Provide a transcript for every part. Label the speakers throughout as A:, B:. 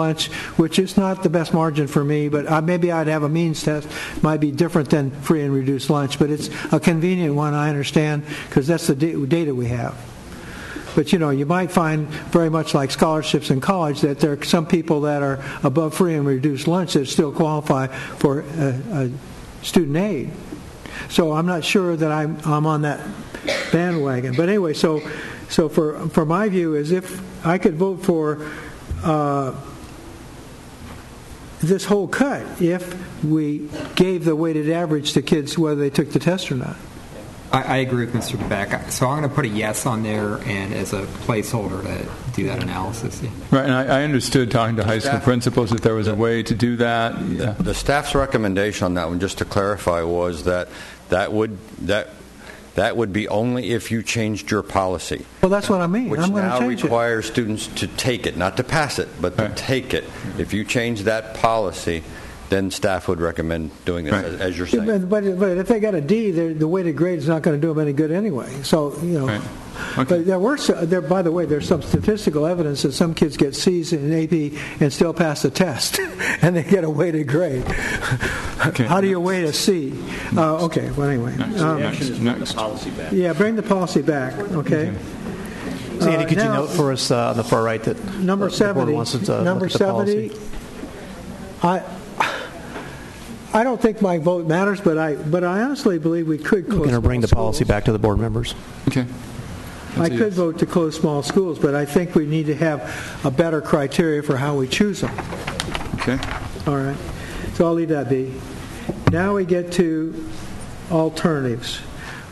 A: lunch, which is not the best margin for me, but I- maybe I'd have a means test, might be different than free and reduced lunch, but it's a convenient one, I understand, because that's the da- data we have. But you know, you might find very much like scholarships in college that there are some people that are above free and reduced lunch that still qualify for uh, uh, student aid. So I'm not sure that I'm, I'm on that bandwagon. But anyway, so so for for my view is if I could vote for uh, this whole cut if we gave the weighted average to kids whether they took the test or not.
B: I, I agree with Mr. Beck. So I'm going to put a yes on there and as a placeholder to do that analysis. yeah.
C: Right, and I, I understood talking to high school
D: Staff-
C: principals that there was a way to do that. Yeah.
D: The staff's recommendation on that one, just to clarify, was that that would, that, that would be only if you changed your policy,
A: Well, that's what I mean.
D: which
A: I'm going to
D: now
A: change it.
D: requires students to take it, not to pass it, but to
C: Right.
D: take it. If you change that policy, then staff would recommend doing this,
C: Right.
D: as as you're
A: Yeah,
D: saying.
A: But, but, but if they got a D, they're- the weighted grade's not going to do them any good anyway. So, you know.
C: Right. Okay.
A: But there were, s- there, by the way, there's some statistical evidence that some kids get C's in AP and still pass the test, and they get a weighted grade.
C: Okay.
A: How do you weight a C?
E: Mm.
A: Uh, okay, well, anyway. Um,
C: Next, next.
A: Yeah, bring the policy back, okay?
E: Sandy,
A: Uh,
E: could you
A: now-
E: note for us uh, on the far right that
A: Number
E: the board
A: 70,
E: wants us to look
A: number
E: at the policy?
A: 70, I, I don't think my vote matters, but I, but I honestly believe we could
E: We're
A: close
E: going to bring the
A: small
E: policy
A: schools.
E: back to the board members.
C: Okay.
A: I
C: That's a
A: could
C: yes.
A: vote to close small schools, but I think we need to have a better criteria for how we choose them.
C: Okay.
A: All right, so I'll leave that be. Now we get to alternatives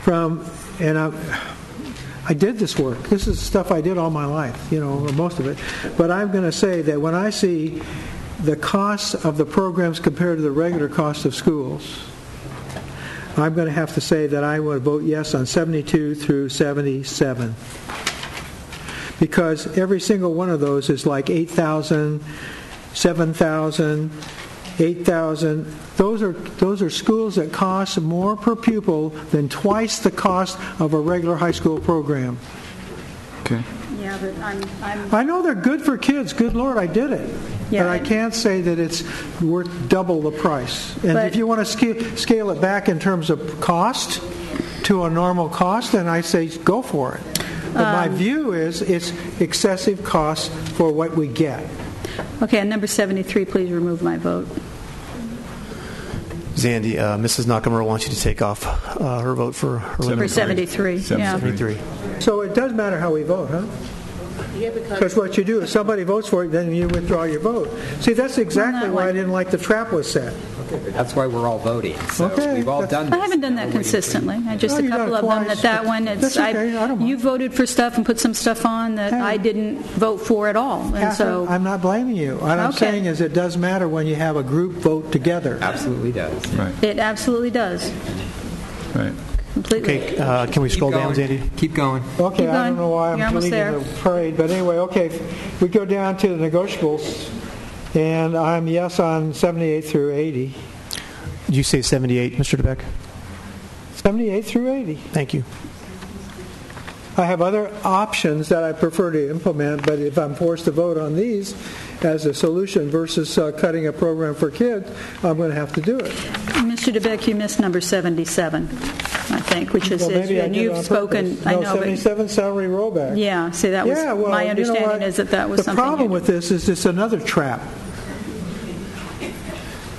A: from, and I, I did this work. This is stuff I did all my life, you know, or most of it. But I'm going to say that when I see the costs of the programs compared to the regular cost of schools, I'm going to have to say that I would vote yes on 72 through 77 because every single one of those is like 8,000, 7,000, 8,000. Those are, those are schools that cost more per pupil than twice the cost of a regular high school program.
C: Okay.
F: Yeah, but I'm, I'm,
A: I know they're good for kids, good Lord, I did it.
F: Yeah.
A: But I can't say that it's worth double the price. And if
F: But-
A: you want to scale, scale it back in terms of cost to a normal cost, then I say go for it. But
F: Um,
A: my view is it's excessive cost for what we get.
F: okay, on number 73, please remove my vote.
E: Zandy, uh, Mrs. Nakamura wants you to take off uh, her vote for her
F: For
E: limit.
F: 73, yeah.
E: 73.
A: So it does matter how we vote, huh?
G: Yeah,
A: Because
G: because
A: what you do, if somebody votes for it, then you withdraw your vote. See, that's exactly
F: not
A: why I
F: like-
A: didn't like the trap was set.
B: That's why we're all voting. So
A: Okay.
B: we've all done
A: That's-
B: this.
F: I haven't done
B: Now
F: that
B: we're waiting for-
F: consistently, I just
A: No,
F: a
A: you've done
F: couple
A: it
F: of them,
A: twice,
F: that that
A: but
F: one, it's,
A: that's okay, I
F: I,
A: don't mind.
F: you voted for stuff and put some stuff on that
A: Hey.
F: I didn't vote for at all, and
A: Catherine,
F: so,
A: I'm not blaming you. What I'm
F: Okay.
A: saying is it does matter when you have a group vote together.
B: Absolutely does.
C: Right.
F: it absolutely does,
C: Right.
F: completely.
E: Okay, uh, can we
B: Keep
E: scroll down,
B: going.
E: Zandy?
B: Keep going.
A: Okay,
F: Keep
A: I don't
F: going.
A: know why
F: You're
A: I'm
F: almost
A: leading
F: there.
A: the parade, but anyway, okay, we go down to the negotiables, and I'm yes on 78 through 80.
E: Did you say 78, Mr. DeBeck?
A: 78 through 80.
E: Thank you.
A: I have other options that I prefer to implement, but if I'm forced to vote on these as a solution versus uh, cutting a program for kids, I'm going to have to do it.
F: Mr. DeBeck, you missed number 77, I think, which is,
A: Well, maybe I
F: and
A: did it
F: you've
A: on
F: spoken,
A: purpose.
F: I
A: No,
F: know, but,
A: 77 salary rollback.
F: yeah, see, that was,
A: Yeah, well,
F: my
A: you know what?
F: understanding is that that was
A: The problem
F: something, you-
A: with this is it's another trap.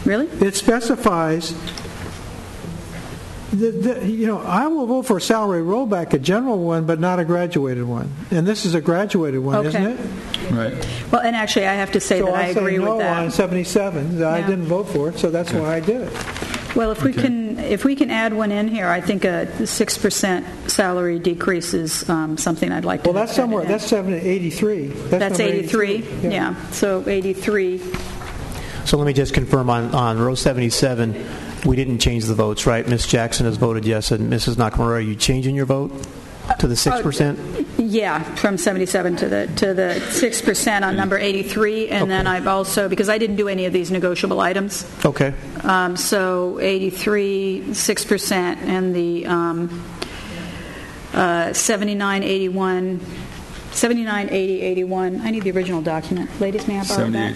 F: really?
A: it specifies, the, the, you know, I will vote for a salary rollback, a general one, but not a graduated one. And this is a graduated one, isn't
F: Okay.
A: it?
C: Right.
F: Well, and actually, I have to say
A: So
F: that I
A: I say
F: agree
A: no
F: with that.
A: on 77, I
F: Yeah.
A: didn't vote for it, so that's why I did it.
F: Well, if we
C: Okay.
F: can, if we can add one in here, I think a 6% salary decrease is um, something I'd like to.
A: Well, that's
F: have added
A: somewhere,
F: in.
A: that's 7, 83.
F: That's
A: number
F: 83, yeah. So 83,
E: So let me just confirm on, on row 77, we didn't change the votes, right? Ms. Jackson has voted yes, and Mrs. Nakamura, are you changing your vote to the 6%?
F: yeah, from 77 to the, to the 6% on number 83. And then I've also, because I didn't do any of these negotiable items,
A: Uh,
E: Okay.
F: um, so 83, 6%, and the um, uh, 79, 81, 79, 80, 81. I need the original document. Ladies, may I borrow
C: 78
F: that?